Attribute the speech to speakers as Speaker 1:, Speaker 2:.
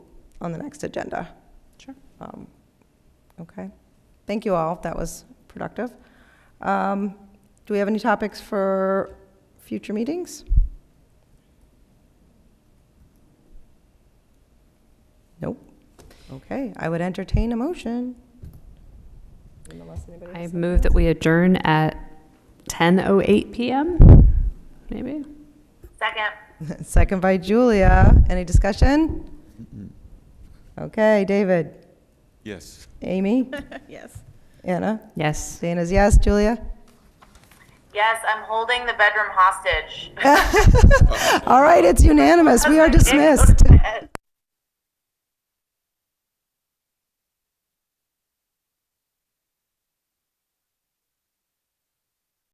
Speaker 1: on the next agenda.
Speaker 2: Sure.
Speaker 1: Um, Okay. Thank you all. That was productive. Um, Do we have any topics for future meetings? Nope. Okay, I would entertain a motion. Unless anybody
Speaker 2: I
Speaker 1: has
Speaker 2: move that we adjourn at 10:08 PM, maybe?
Speaker 3: Second.
Speaker 1: something. Second by Julia. Any discussion? Okay, David,
Speaker 4: Yes.
Speaker 1: Amy,
Speaker 3: Yes.
Speaker 1: Anna,
Speaker 2: Yes.
Speaker 1: Dana's yes, Julia?
Speaker 3: Yes, I'm holding the bedroom hostage.
Speaker 1: All right, it's unanimous. We are dismissed.
Speaker 3: Yes.